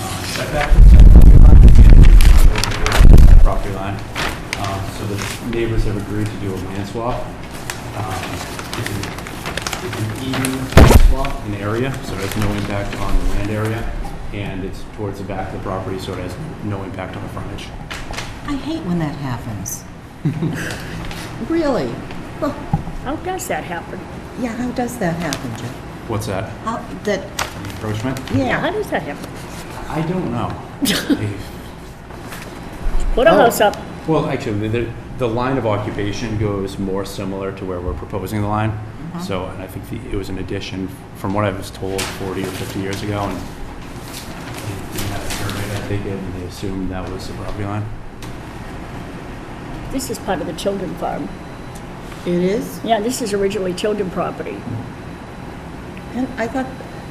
setback is set from the property line, the property line. Um, So the neighbors have agreed to do a land swap. Um, It's an it's an even swap in area, so it has no impact on the land area, and it's towards the back of the property, so it has no impact on the frontage. I hate when that happens. Really? Well, How does that happen? yeah, how does that happen, Jeff? What's that? How, that, The Encroachment? Yeah, how yeah, does that happen? I don't know. Dave. Put a house up, Well, actually, the, the line of occupation goes more similar to where we're proposing the line. Mm-hmm. So, and I think the- it was an addition, from what I was told, 40 or 50 years ago, and they didn't have a survey that they did, and they assumed that was the property line. this is part of the children farm. it is. Yeah, this is originally children property. Pen- I thought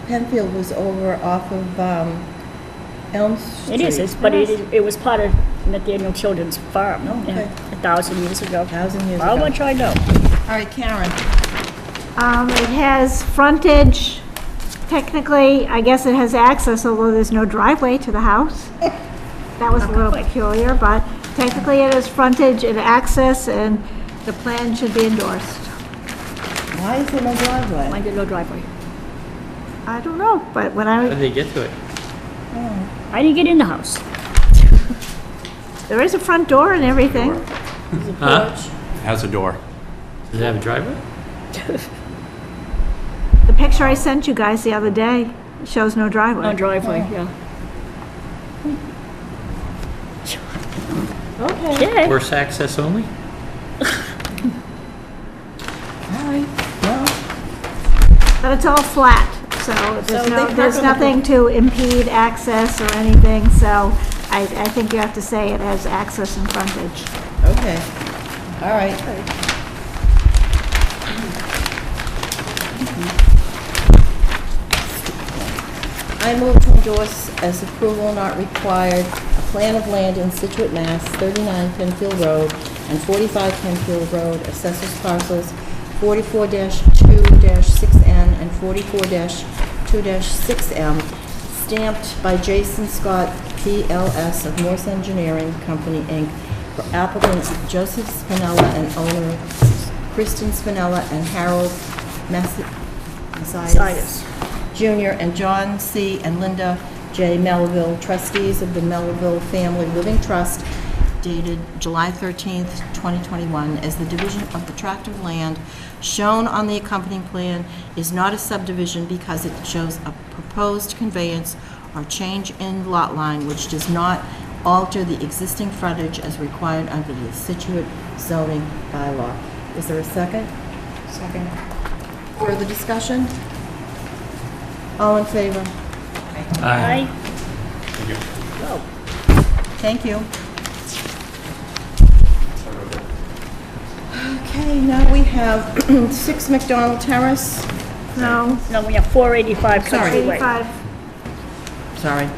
Penfield was over off of um, Elm Street. It is, it's- but it is, it was part of Nathaniel Children's Farm. Oh, yeah, okay. A thousand years ago. Thousand years How ago. much I know. All right, Karen. Um, it has frontage, technically, I guess it has access, although there's no driveway to the house. That was a little peculiar, but technically it has frontage and access, and the plan should be endorsed. Why is there no I driveway? did no driveway. I don't know, but when How I, did they get to it? I didn't get in the house. there is a front door and everything. Huh? It Has a door. Does it have a driver? The picture I sent you guys the other day shows no No driveway. driveway, yeah. Okay, Yeah, Horse access only? all right, well, But it's all flat, so So there's they no, park there's on the- nothing to impede access or anything, so I, I think you have to say it has access and frontage. okay, all right. I move to endorse as approval not required, a plan of land in Situate, Mass., 39 Penfield Road and 45 Penfield Road, assessors parcels 44-2-6N and 44-2-6M, stamped by Jason Scott, PLS of Morse Engineering Company, Inc., for applicants Joseph Spinella and owner Kristen Spinella and Harold Massi- Messias. Messias. Jr., and John C. and Linda J. Melville, trustees of the Melville Family Living Trust, dated July 13th, 2021, as the division of the tract of land shown on the accompanying plan is not a subdivision because it shows a proposed conveyance or change in lot line which does not alter the existing frontage as required under the Situate zoning bylaw. Is there a second? Second. Further discussion? All in favor? I, Thank you. Okay, now we have 6 McDonald Terrace. No, no, we have 485 Sorry. Country Way. 85, Sorry.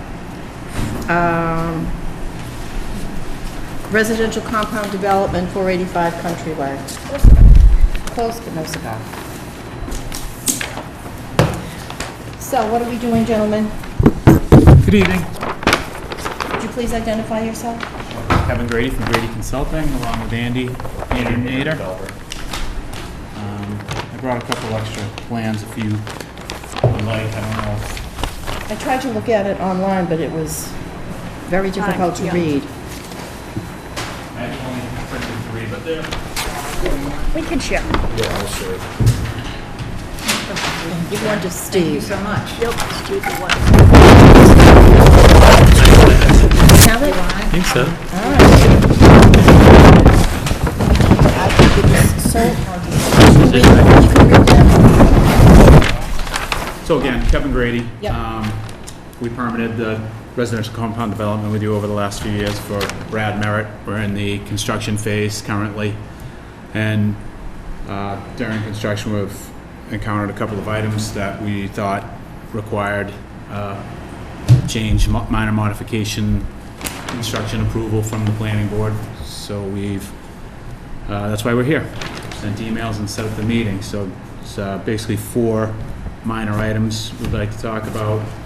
Um, Residential compound development, 485 Country Way. Close, but no cigar. So what are we doing, gentlemen? Good evening. Would you please identify yourself? Kevin Grady from Grady Consulting, along with Andy, Andy Nader. Um, I brought a couple extra plans if you would like, I don't know. if- I tried to look at it online, but it was very difficult to yeah. read. I only printed three, but they're We can share. Give one to Steve. Yep, stupid one. Have it? I think so. I think it was so So again, Kevin Grady. Yep. Um, We permitted the residential compound development with you over the last few years for Brad Merritt. We're in the construction phase currently. And uh, during construction, we've encountered a couple of items that we thought required uh, change, mo- minor modification, construction approval from the planning board. So we've uh, That's why we're here. Sent emails and set up the meeting. So it's uh, basically four minor items we'd like to talk about.